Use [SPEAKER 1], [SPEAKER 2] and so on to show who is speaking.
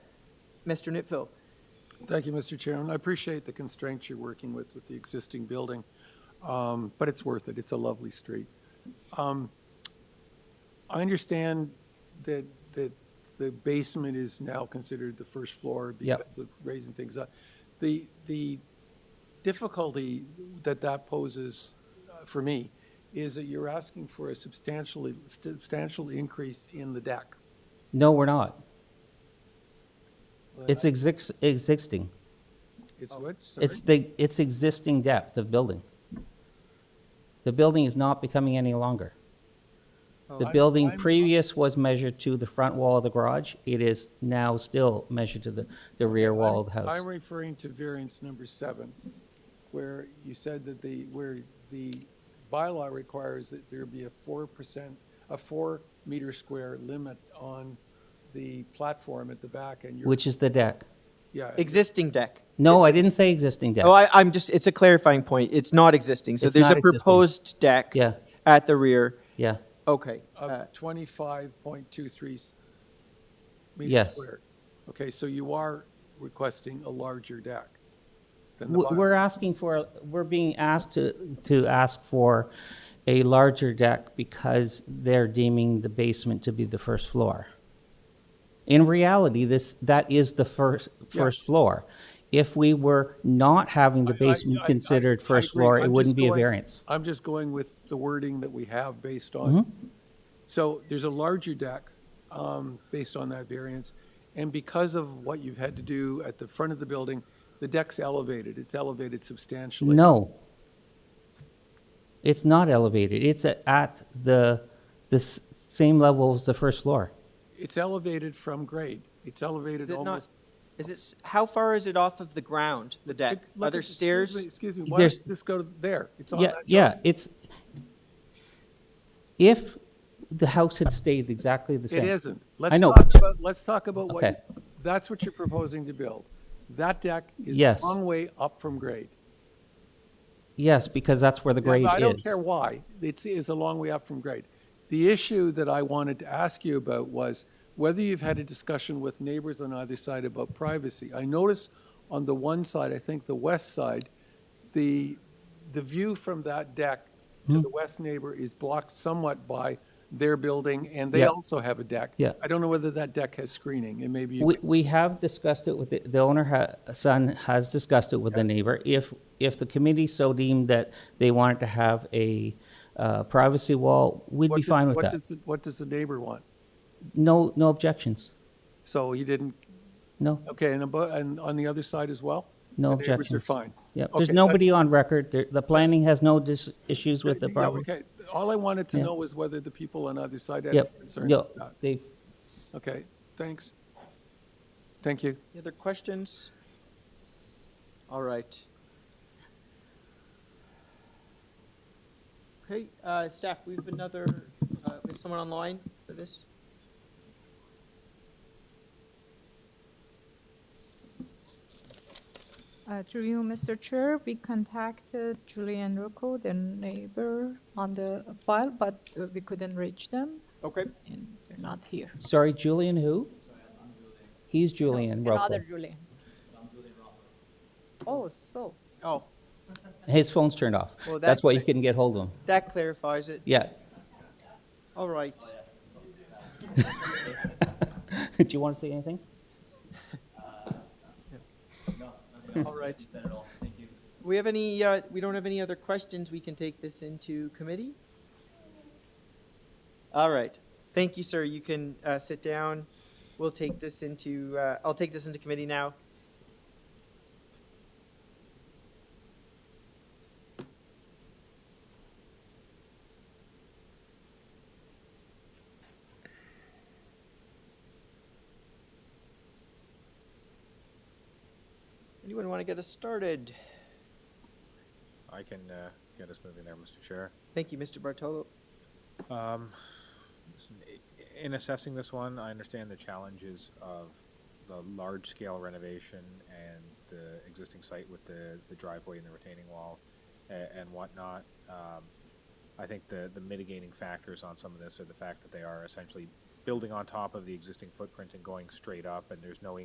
[SPEAKER 1] Mr. Nipville.
[SPEAKER 2] Thank you, Mr. Chairman. I appreciate the constraints you're working with, with the existing building, um, but it's worth it. It's a lovely street. Um, I understand that, that the basement is now considered the first floor
[SPEAKER 3] Yep.
[SPEAKER 2] because of raising things up. The, the difficulty that that poses uh, for me is that you're asking for a substantially, substantial increase in the deck.
[SPEAKER 3] No, we're not. It's exis- existing.
[SPEAKER 2] It's what? Sorry.
[SPEAKER 3] It's the, it's existing depth of building. The building is not becoming any longer. The
[SPEAKER 2] I-
[SPEAKER 3] building
[SPEAKER 2] I'm-
[SPEAKER 3] previous was measured to the front wall of the garage. It is now still measured to the, the rear wall of the
[SPEAKER 2] I'm
[SPEAKER 3] house.
[SPEAKER 2] referring to variance number seven, where you said that the, where the bylaw requires that there be a four percent, a four meter square limit on the platform at the back and you're.
[SPEAKER 3] Which is the deck.
[SPEAKER 2] Yeah,
[SPEAKER 1] Existing deck.
[SPEAKER 3] No, I didn't say existing deck.
[SPEAKER 1] Oh, I, I'm just, it's a clarifying point. It's not existing. So
[SPEAKER 3] It's
[SPEAKER 1] there's
[SPEAKER 3] not
[SPEAKER 1] a
[SPEAKER 3] existing.
[SPEAKER 1] proposed deck
[SPEAKER 3] Yeah.
[SPEAKER 1] at the rear.
[SPEAKER 3] Yeah,
[SPEAKER 1] Okay. uh,
[SPEAKER 2] of twenty-five point two three meters
[SPEAKER 3] Yes.
[SPEAKER 2] square. Okay, so you are requesting a larger deck than the
[SPEAKER 3] W-
[SPEAKER 2] bylaw.
[SPEAKER 3] we're asking for, we're being asked to, to ask for a larger deck because they're deeming the basement to be the first floor. In reality, this, that is the first,
[SPEAKER 2] Yeah.
[SPEAKER 3] first floor. If we were not having the
[SPEAKER 2] I- I-
[SPEAKER 3] basement
[SPEAKER 2] I- I-
[SPEAKER 3] considered
[SPEAKER 2] I
[SPEAKER 3] first
[SPEAKER 2] agree.
[SPEAKER 3] floor,
[SPEAKER 2] I'm
[SPEAKER 3] it
[SPEAKER 2] just
[SPEAKER 3] wouldn't be a
[SPEAKER 2] going-
[SPEAKER 3] variance. Mm-hmm.
[SPEAKER 2] I'm just going with the wording that we have based on, so there's a larger deck um, based on that variance, and because of what you've had to do at the front of the building, the deck's elevated, it's elevated substantially.
[SPEAKER 3] No. It's not elevated. It's a- at the, the s- same level as the first floor.
[SPEAKER 2] It's elevated from grade, it's
[SPEAKER 1] Is
[SPEAKER 2] elevated
[SPEAKER 1] it not,
[SPEAKER 2] almost.
[SPEAKER 1] is it, s- how far is it off of the ground, the deck?
[SPEAKER 2] Look
[SPEAKER 1] Are
[SPEAKER 2] at-
[SPEAKER 1] there
[SPEAKER 2] excuse
[SPEAKER 1] stairs?
[SPEAKER 2] me, Excuse me, why don't
[SPEAKER 3] There's-
[SPEAKER 2] you just go to there, it's on
[SPEAKER 3] Yeah,
[SPEAKER 2] that.
[SPEAKER 3] yeah, it's, if the house had stayed exactly the same.
[SPEAKER 2] It isn't.
[SPEAKER 3] I
[SPEAKER 2] Let's
[SPEAKER 3] know,
[SPEAKER 2] talk
[SPEAKER 3] but just-
[SPEAKER 2] about, let's talk about what,
[SPEAKER 3] Okay.
[SPEAKER 2] you- that's what you're proposing to build. That deck is a
[SPEAKER 3] Yes.
[SPEAKER 2] long way up from grade.
[SPEAKER 3] Yes, because that's where the
[SPEAKER 2] Yeah, but
[SPEAKER 3] grade
[SPEAKER 2] I don't
[SPEAKER 3] is.
[SPEAKER 2] care why. It's, it's a long way up from grade. The issue that I wanted to ask you about was whether you've had a discussion with neighbors on either side about privacy. I notice on the one side, I think the west side, the, the view from that deck to
[SPEAKER 3] Hmm.
[SPEAKER 2] the west neighbor is blocked somewhat by their building, and they
[SPEAKER 3] Yeah.
[SPEAKER 2] also have a deck.
[SPEAKER 3] Yeah.
[SPEAKER 2] I don't know whether that deck has screening, and maybe you
[SPEAKER 3] We, we have discussed it with, the the owner, ha- son has discussed it with the neighbor. If, if the committee so deemed that they wanted to have a uh, privacy wall, we'd
[SPEAKER 2] What
[SPEAKER 3] be
[SPEAKER 2] do-
[SPEAKER 3] fine with
[SPEAKER 2] what
[SPEAKER 3] that.
[SPEAKER 2] does the- What does the neighbor want?
[SPEAKER 3] No, no objections.
[SPEAKER 2] So he didn't,
[SPEAKER 3] No,
[SPEAKER 2] okay, and abo- and on the other side as well?
[SPEAKER 3] No
[SPEAKER 2] The neighbors are
[SPEAKER 3] objections.
[SPEAKER 2] fine?
[SPEAKER 3] yeah, there's
[SPEAKER 2] Okay,
[SPEAKER 3] nobody
[SPEAKER 2] that's-
[SPEAKER 3] on record. There- The planning has no dis- issues with the
[SPEAKER 2] Yeah,
[SPEAKER 3] property.
[SPEAKER 2] Okay, all I wanted to
[SPEAKER 3] Yeah.
[SPEAKER 2] know was whether the people on either side had any
[SPEAKER 3] Yep,
[SPEAKER 2] concerns
[SPEAKER 3] yep,
[SPEAKER 2] about that.
[SPEAKER 3] they've,
[SPEAKER 2] Okay, thanks. Thank you.
[SPEAKER 1] Any other questions? All right. Okay, uh, staff, we have another, uh, we have someone online for this?
[SPEAKER 4] Uh, Through you, Mr. Chair, we contacted Julian Rocco, the neighbor on the file, but uh, we couldn't reach them,
[SPEAKER 1] Okay.
[SPEAKER 4] and they're not here.
[SPEAKER 3] sorry, Julian who? He's Julian Rocco.
[SPEAKER 4] Another Julian. Oh, so,
[SPEAKER 1] Oh,
[SPEAKER 3] His phone's turned off.
[SPEAKER 1] Well, that-
[SPEAKER 3] That's why you couldn't get hold of him.
[SPEAKER 1] that clarifies it.
[SPEAKER 3] Yeah.
[SPEAKER 1] All right.
[SPEAKER 3] Do you want to say anything?
[SPEAKER 1] All right. We have any, uh, we don't have any other questions. We can take this into committee? All right. Thank you, sir. You can, uh, sit down. We'll take this into, uh, I'll take this into committee now. Anyone want to get us started?
[SPEAKER 5] I can uh, get us moving there, Mr. Chair.
[SPEAKER 1] Thank you, Mr. Bartolo.
[SPEAKER 5] Um, listen, i- In assessing this one, I understand the challenges of the large-scale renovation and the existing site with the the driveway and the retaining wall a- and whatnot. Um, I think the the mitigating factors on some of this are the fact that they are essentially building on top of the existing footprint and going straight up, and there's no